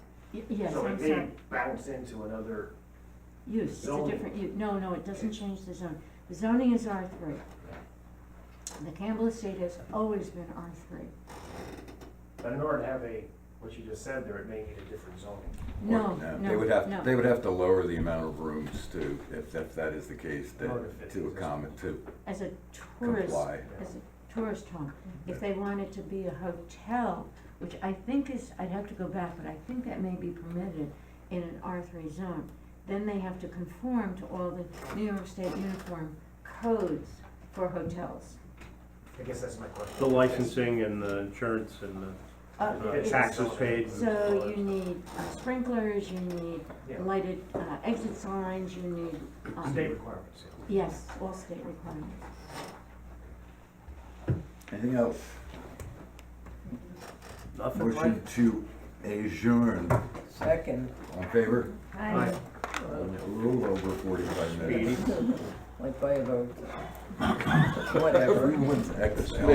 Y- Yes, So I'm it may sorry, bounce into another, use, it's a zoning. different, u- no, no, it doesn't change the zone, the zoning is R three. The Campbell Estate has always been R three, but in order to have a, what you just said there, it may need a different zoning. Or- no, Oh, no, They would have, no. they would have to lower the amount of rooms to, if, if that is the case, In order to that, fit to these. accommodate, to As a tourist, comply. as a tourist home, if they wanted to be a hotel, which I think is, I'd have to go back, but I think that may be permitted in an R three zone, then they have to conform to all the New York State uniform codes for hotels. I guess that's my question. The licensing and the insurance and Uh, the uh, it's- taxes paid. and all So that. you need uh, sprinklers, you need Yeah. lighted uh, exit signs, you need, um, State requirements, yeah. yes, all state requirements. Anything else? Nothing like, Motion to adjourn, Second, on favor? Aye. A little over forty-five minutes. speedy. like by about, whatever. Everyone's excellent.